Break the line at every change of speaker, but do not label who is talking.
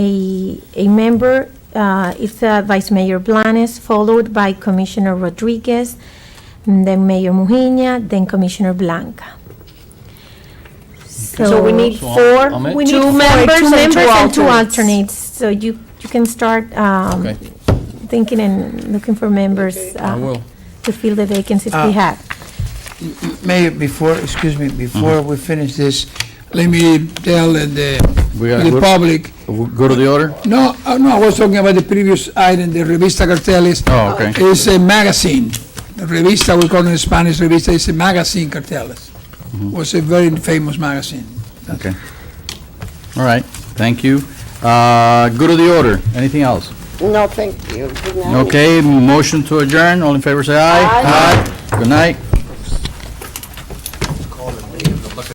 a, a member, uh, it's uh, Vice Mayor Blanes, followed by Commissioner Rodriguez, and then Mayor Mujina, then Commissioner Blanca.
So we need
So I'll-
four,
I'll make-
We need
two
four-
members and two alternates.
So you, you can start um,
Okay.
thinking and looking for members
I
uh,
will.
to fill the vacancies we
Uh,
have.
Mayor, before, excuse me, before
Mm-hmm.
we finish this, let me tell the,
We got-
the
we're-
public,
We'll Go to the order?
no, uh, no, I was talking about the previous item, the Revista Carteles.
Oh, okay.
It's a magazine. The Revista, we call it in Spanish, Revista, it's a magazine, Carteles.
Mm-hmm.
Was a very famous magazine.
Okay. All right, thank you. Uh, Go to the order. Anything else?
No, thank you. Good night.
Okay, motion to adjourn. All in favor, say aye.
Aye.
Aye. Good night.